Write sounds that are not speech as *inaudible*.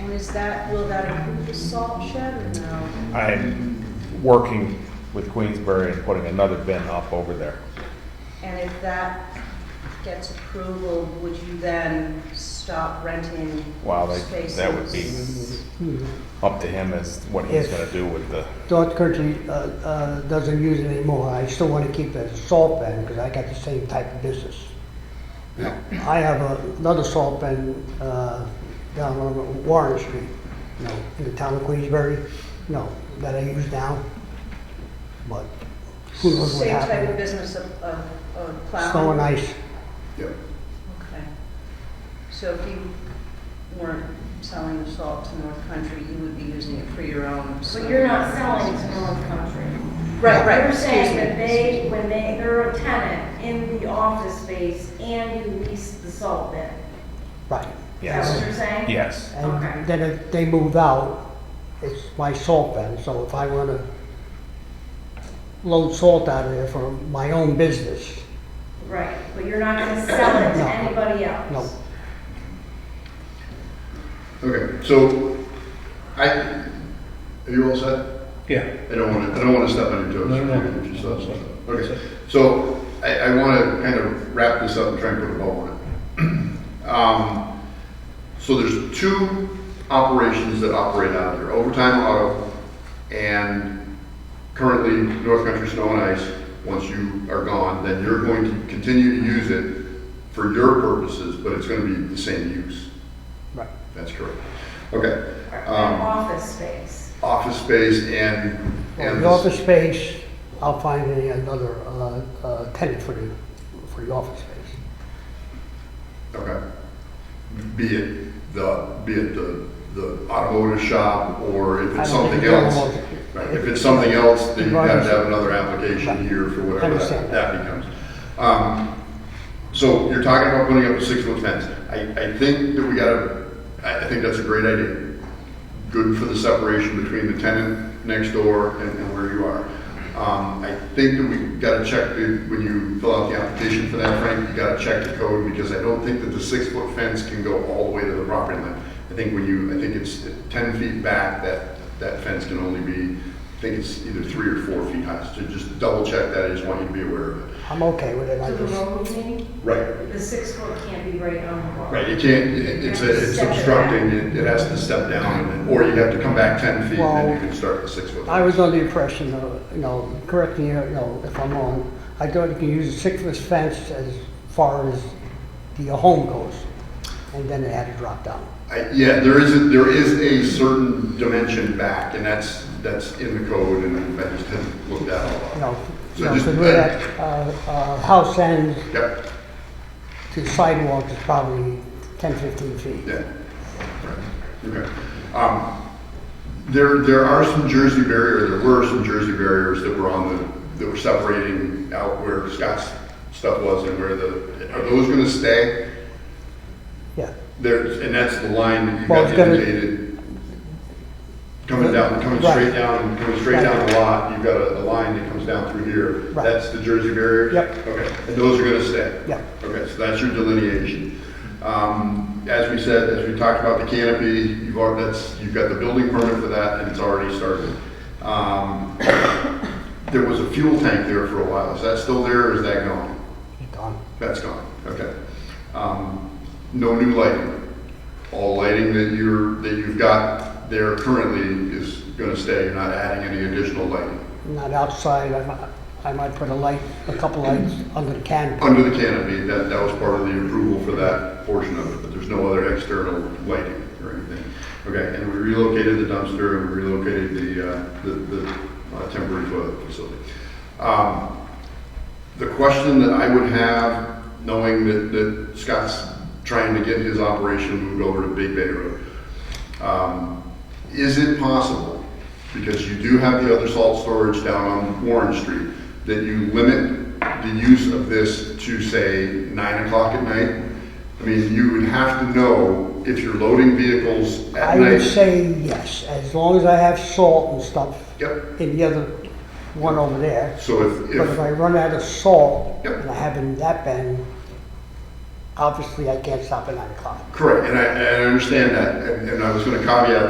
And is that, will that include the salt shed or no? I'm working with Queensbury and putting another bin up over there. And if that gets approval, would you then stop renting Wow, they- spaces? that would be up to him as what he's Yes. gonna do with the, North Country uh, uh, doesn't use it anymore. I still want to keep it as a salt bin because I got the same type of business. I have a- another salt bin uh, down on Warren Street, you know, in the town of Queensbury, you know, that I use now. But who knows what Same type of happened? business of, of, of plowing? Snow and ice. Yep. Okay. So if you weren't selling the salt to North Country, you would be using it for your own. But you're not selling it to North Country. Right, right. You're saying excuse that me. they, when they, they're a tenant in the office space and you lease the salt bin. Right. Is that yes, what you're saying? yes. Okay. And then if they move out, it's my salt bin, so if I wanna load salt out of there for my own business, Right, but you're not gonna sell it to No. anybody else? no. Okay, so I, are you all set? Yeah. I don't want to, I don't want to step on your toes. No, no, no. You just said something. Okay, so I, I want to kind of wrap this up and try and put a bow on it. *clears throat* Um, So there's two operations that operate out there, Overtime Auto and currently North Country Snow and Ice. Once you are gone, then you're going to continue to use it for your purposes, but it's going to be the same use. Right. That's correct. Okay, Or Um, An office space? office space and, Well, and the office space, I'll find a- another, uh, uh, tenant for the, for the office space. Okay. Be it the, be it the, the automotive shop, or if I it's don't think something the else. automotive- Right, If it's something else, then you have to have another Right. application here for whatever that, Understand. that becomes. Um, So you're talking about putting up a six-foot fence. I, I think that we gotta, I, I think that's a great idea. Good for the separation between the tenant next door and, and where you are. Um, I think that we gotta check, the- when you fill out the application for that, Frank, you gotta check the code, because I don't think that the six-foot fence can go all the way to the property line. I think when you, I think it's ten feet back, that, that fence can only be, I think it's either three or four feet high. So just double check that, I just want you to be aware of it. I'm okay with it, I To the just, road, you mean? Right. The six foot can't be right on the road? Right, you can't, it- it's, it's obstructing, it it has to step down, or you have to come back 10 feet, and you can start the six foot. I was under the impression, uh, you know, correct me, uh, you know, if I'm wrong, I thought you can use a six-foot fence as far as the uh, home goes, and then it had to drop down. I- Yeah, there is, a- there is a certain dimension back, and that's, that's in the code, and I just haven't looked that you all up. know, So you know, just- 'cause we're at, uh, uh, house end Yep, to sidewalk is probably 10, 15 feet. yeah. Okay. Um, There, there are some Jersey barrier, there were some Jersey barriers that were on the, that were separating out where Scott's stuff was and where the, are those gonna stay? Yeah, There's, and that's the line that you Well, got it's gonna- indicated. Coming down, coming Right. straight down, coming straight Right. down the lot, you've got a, a line that comes down through here. Right. That's the Jersey barrier? Yep. Okay, and those are gonna stay? yeah, Okay, so that's your delineation. Um, as we said, as we talked about the canopy, you've already, that's, you've got the building permit for that, and it's already started. Um, *coughs* there was a fuel tank there for a while, is that still there, or is that gone? it's gone. That's gone, okay. Um, No new lighting. All lighting that you're, that you've got there currently is gonna stay, you're not adding any additional lighting Not outside, I might, I might put a light, a couple lights under the canopy. under the canopy, that, that was part of the approval for that portion of it, but there's no other external lighting or anything. Okay, and we relocated the dumpster, and we relocated the, uh, the, the uh, temporary toilet facility. Um, The question that I would have, knowing that, that Scott's trying to get his operation moved over to Big Bay Road, um, Is it possible, because you do have the other salt storage down on Warren Street, that you limit the use of this to, say, nine o'clock at night? I mean, you would have to know if you're loading vehicles at I would night. say yes, as long as I have salt and stuff Yep, in the other one over there. so if, But if if, I run out of salt Yep. and I have it in that bin, obviously I can't stop at nine o'clock. Correct, and I, and I understand that, and, and I was gonna caveat